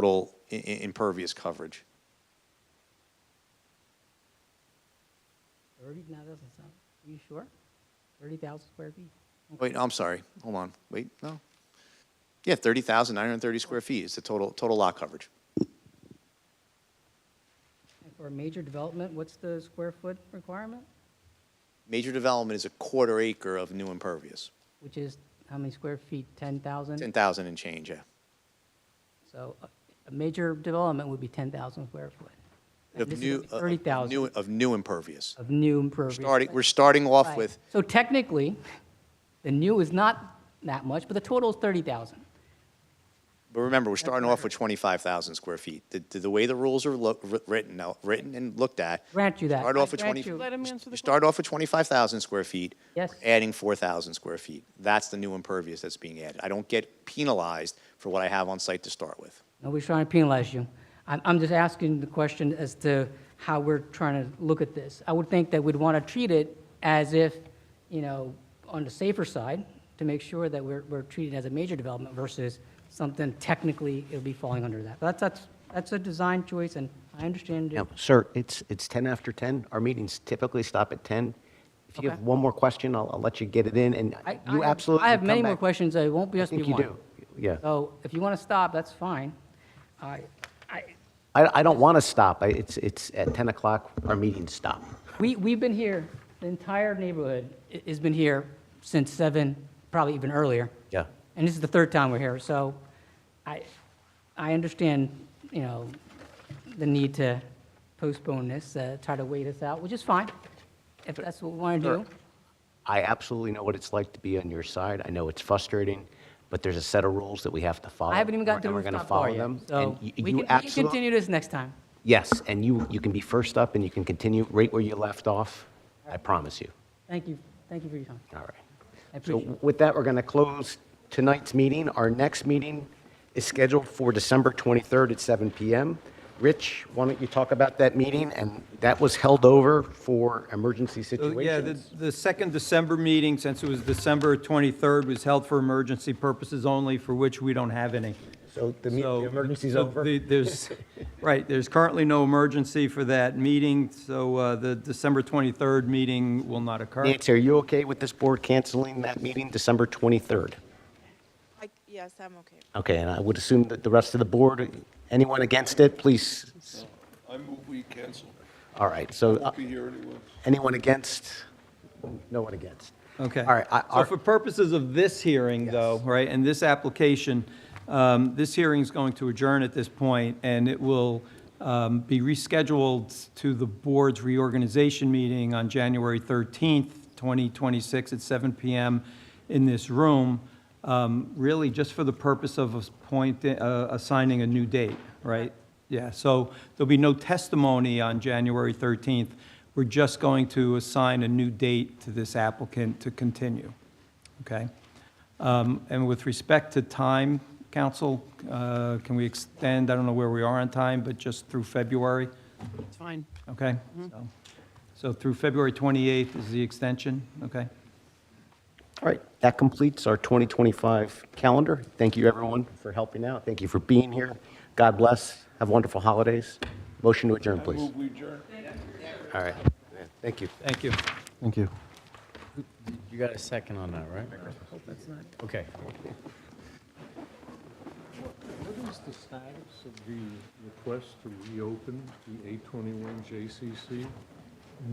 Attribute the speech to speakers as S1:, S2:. S1: total i- i- impervious coverage.
S2: Thirty, no, that doesn't sound, are you sure? Thirty thousand square feet?
S1: Wait, I'm sorry, hold on, wait, no. Yeah, 30,930 square feet is the total, total lot coverage.
S2: And for a major development, what's the square foot requirement?
S1: Major development is a quarter acre of new impervious,
S2: Which is how many square feet? Ten thousand?
S1: 10,000 and change, yeah.
S2: So a- a major development would be ten thousand square foot. And
S1: Of
S2: this is
S1: new,
S2: gonna be
S1: of- of
S2: 30,000.
S1: new- Of new impervious.
S2: Of new impervious.
S1: Starting, we're starting off
S2: Right.
S1: with,
S2: So technically, the new is not that much, but the total is thirty thousand.
S1: but remember, we're starting off
S2: right.
S1: with 25,000 square feet. The, the- the way the rules are lo- wri- written, now- written and looked at.
S2: Grant you that.
S1: Start
S2: I
S1: off with
S2: grant
S1: 20.
S2: you.
S3: Let him
S1: you
S3: answer the
S1: Start off with 25,000 square feet.
S2: Yes.
S1: We're Adding 4,000 square feet. That's the new impervious that's being added. I don't get penalized for what I have on site to start with.
S2: Nobody's trying to penalize you. I'm, I'm just asking the question as to how we're trying to look at this. I would think that we'd want to treat it as if, you know, on the safer side, to make sure that we're, we're treated as a major development versus something technically it'll be falling under that. That's, that's, that's a design choice, and I understand. it.
S4: Now, sir, it's, it's 10 after 10. Our meetings typically stop at 10. If you have
S2: Okay.
S4: one more question, I'll, I'll let you get it in, and
S2: I- I
S4: you
S2: have-
S4: absolutely
S2: I have
S4: come
S2: many more
S4: back.
S2: questions, it won't be just be
S4: think you
S2: one.
S4: do. Yeah.
S2: So if you want to stop, that's fine. I, I,
S4: I, I don't want to stop. I- It's, it's at 10 o'clock, our meetings stop.
S2: We, we've been here, the entire neighborhood i- has been here since seven, probably even earlier.
S4: Yeah.
S2: And this is the third time we're here, so I, I understand, you know, the need to postpone this, uh, try to wait us out, which is fine, if that's what we want to do.
S4: I absolutely know what it's like to be on your side. I know it's frustrating, but there's a set of rules that we have to follow.
S2: I haven't even got to the
S4: and we're gonna
S2: rooftop bar
S4: follow
S2: yet,
S4: them,
S2: so
S4: and
S2: we
S4: you-
S2: can,
S4: you
S2: we can
S4: absolute-
S2: continue this next time.
S4: Yes, and you, you can be first up, and you can continue right where you left off. I promise you.
S2: Thank you, thank you for your time.
S4: All right.
S2: I
S4: So
S2: appreciate it.
S4: with that, we're going to close tonight's meeting. Our next meeting is scheduled for December 23rd at 7 PM. Rich, why don't you talk about that meeting? And that was held over for emergency
S5: So, Uh, Yeah, the,
S4: situations.
S5: the second December meeting, since it was December 23rd, was held for emergency purposes only, for which we don't have any.
S4: So the me-
S5: So-
S4: the emergency's
S5: so
S4: over.
S5: the- There's, right, there's currently no emergency for that meeting, so uh, the December 23rd meeting will not occur.
S4: Nancy, are you okay with this board canceling that meeting December 23rd?
S3: I, yes, I'm okay.
S4: Okay, and I would assume that the rest of the board, anyone against it, please?
S6: I move we cancel.
S4: All right, so uh,
S6: Won't be here anyway.
S4: anyone against? No one against.
S5: Okay.
S4: All right. I-
S5: So
S4: our-
S5: for purposes of this hearing, though, right, and this application, um, this hearing's going to adjourn at this point, and it will um, be rescheduled to the board's reorganization meeting on January 13th, 2026, at 7 PM in this room, um, really just for the purpose of appoint- uh, assigning a new date, right? Yeah, so there'll be no testimony on January 13th. We're just going to assign a new date to this applicant to continue, okay? Um, And with respect to time, counsel, uh, can we extend, I don't know where we are on time, but just through February,
S7: It's fine. Mm-hmm.
S5: okay? So- So through February 28th is the extension, okay?
S4: All right, that completes our 2025 calendar. Thank you, everyone, for helping out. Thank you for being here. God bless. Have wonderful holidays. Motion to adjourn, please.
S6: Move we adjourn.
S4: All right. Yeah, Thank you.
S5: Thank you.
S8: Thank you.
S7: You got a second on that, right? Okay.
S8: What is the status of the request to reopen the 821 JCC?